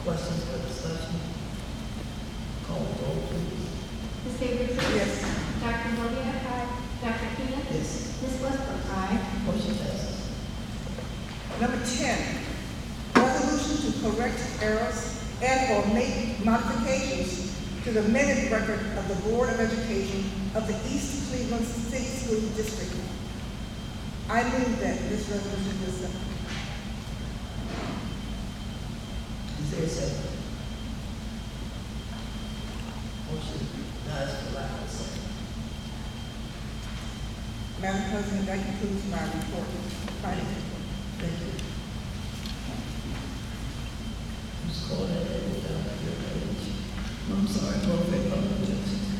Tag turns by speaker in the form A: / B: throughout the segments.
A: Questions or discussion? Call the roll, please.
B: Ms. Xavier Priest.
C: Yes.
B: Dr. Maria. Aye. Dr. Keenan.
A: Yes.
B: Ms. Westbrook. Aye.
A: Motion passes.
C: Number 10, resolution to correct errors and/or make modifications to the minute record of the Board of Education of the East Cleveland City School District. I move that this resolution is adopted.
A: Is there a second? Motion dies for lack of a second.
C: Madam President, that concludes my report. Finance report.
A: Thank you. Ms. Carter, that was down at your page. I'm sorry, go ahead, Alderman Johnson.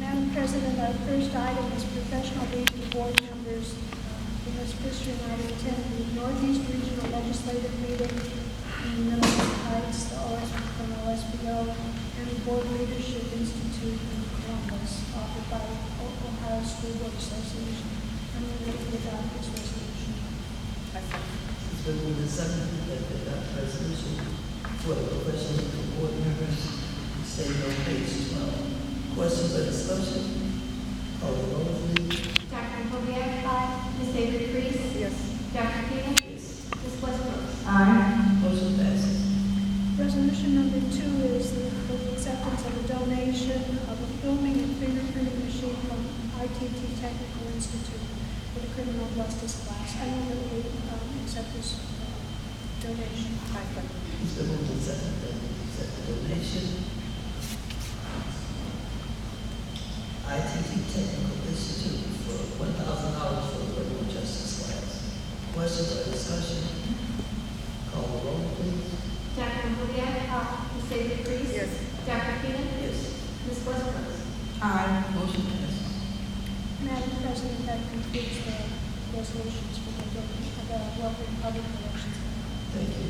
D: Madam President, our first item is professional leave to board members. uh, In this Christian, I attended the Northeast Regional Legislative Meeting in Middleton Heights, the OS, from OSBO, and the Board Leadership Institute in Columbus, offered by O- Ohio School Board Association. I'm going to adopt this resolution.
C: I second.
A: It's been moved and seconded that the adopt resolution for the professional for board members, stated on page twelve. Questions or discussion? Call the roll, please.
B: Dr. Maria. Aye. Ms. Xavier Priest.
C: Yes.
B: Dr. Keenan.
A: Yes.
B: Ms. Westbrook.
A: Motion passes.
D: Resolution number two is the the acceptance of a donation of a filming and fingerprinting machine from ITT Technical Institute for the criminal justice class. I move that we um, accept this uh, donation.
C: I second.
A: It's been moved and seconded that we accept the donation. ITT Technical Institute for one thousand dollars for the criminal justice class. Questions or discussion? Call the roll, please.
B: Dr. Maria. Aye. Ms. Xavier Priest.
C: Yes.
B: Dr. Keenan.
A: Yes.
B: Ms. Westbrook.
C: Aye.
A: Motion passes.
D: Madam President, that concludes the resolutions for the donation, the welfare and public relations.
A: Thank you.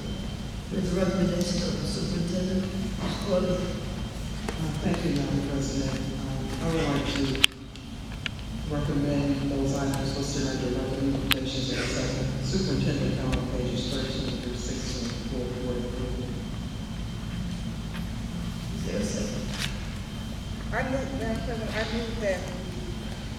A: With the recommendation of the superintendent, Ms. Carter,
E: Uh, Thank you, Madam President. Um, I would like to recommend those items listed under recommendations and acceptance. Superintendent, count on pages thirteen through sixteen for board approval.
A: is there a second?
C: I move, Madam President, I move that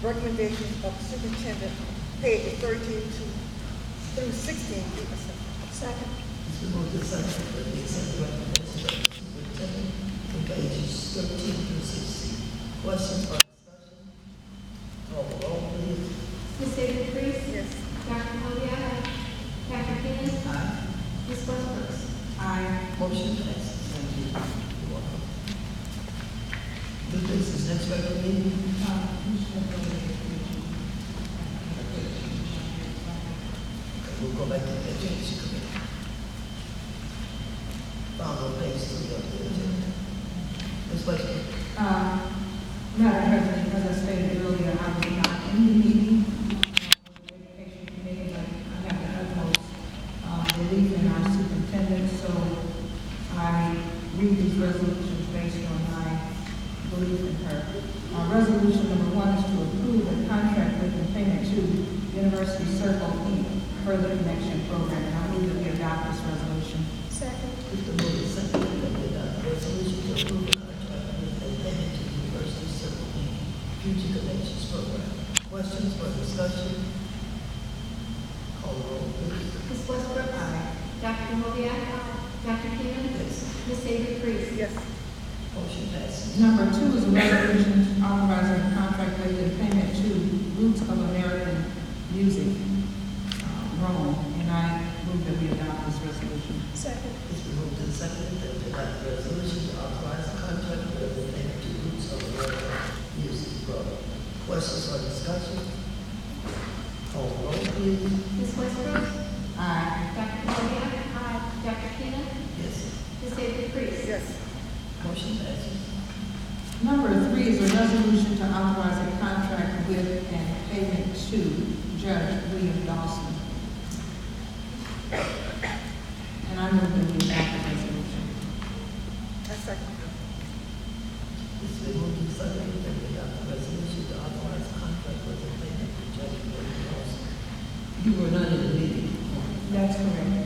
C: recommendations of superintendent pages thirteen to, through sixteen be accepted.
D: Second.
A: It's been moved and seconded that we accept the recommendation of the superintendent from pages thirteen through sixteen. Questions or discussion? Call the roll, please.
B: Ms. Xavier Priest.
C: Yes.
B: Dr. Maria. Aye. Dr. Keenan.
A: Aye.
B: Ms. Westbrook.
C: Aye.
A: Motion passes. Thank you. You're welcome. New business, next regular meeting. Okay, We'll go back to the education committee. Follow page three of the agenda. Ms. Westbrook.
F: Uh, Madam President, as I stated earlier, I was not in the meeting, uh, with the education committee, but I have the utmost uh, belief in our superintendent, so I read these resolutions based on my belief in her. Uh, Resolution number one is to approve a contract with and payment to University Circle Inc. Further Connection Program, and I move that we adopt this resolution.
D: Second.
A: Mr. Moody, second, that we adopt the resolution to approve the contract with a payment to University Circle Inc. Future Connections Program. Questions or discussion? Call the roll, please.
B: Ms. Westbrook. Dr. Maria. Aye. Dr. Keenan.
A: Yes.
B: Ms. Xavier Priest.
C: Yes.
A: Motion passes.
F: Number two is a resolution authorizing a contract with and payment to Roots of American Music, uh, Rome, and I move that we adopt this resolution.
D: Second.
A: It's been moved and seconded that we adopt the resolution to authorize the contract with a payment to Roots of America Music Program. Questions or discussion? Call the roll, please.
B: Ms. Westbrook.
F: Aye.
B: Dr. Maria. Aye. Dr. Keenan.
A: Yes.
B: Ms. Xavier Priest.
C: Yes.
A: Motion passes.
F: Number three is a resolution to authorize a contract with and payment to Judge William Dawson. And I move that we adopt the resolution.
C: I second.
A: It's been moved and seconded that we adopt the resolution to authorize contract with the plaintiff to judge William Dawson. You were not in the meeting.
F: That's correct.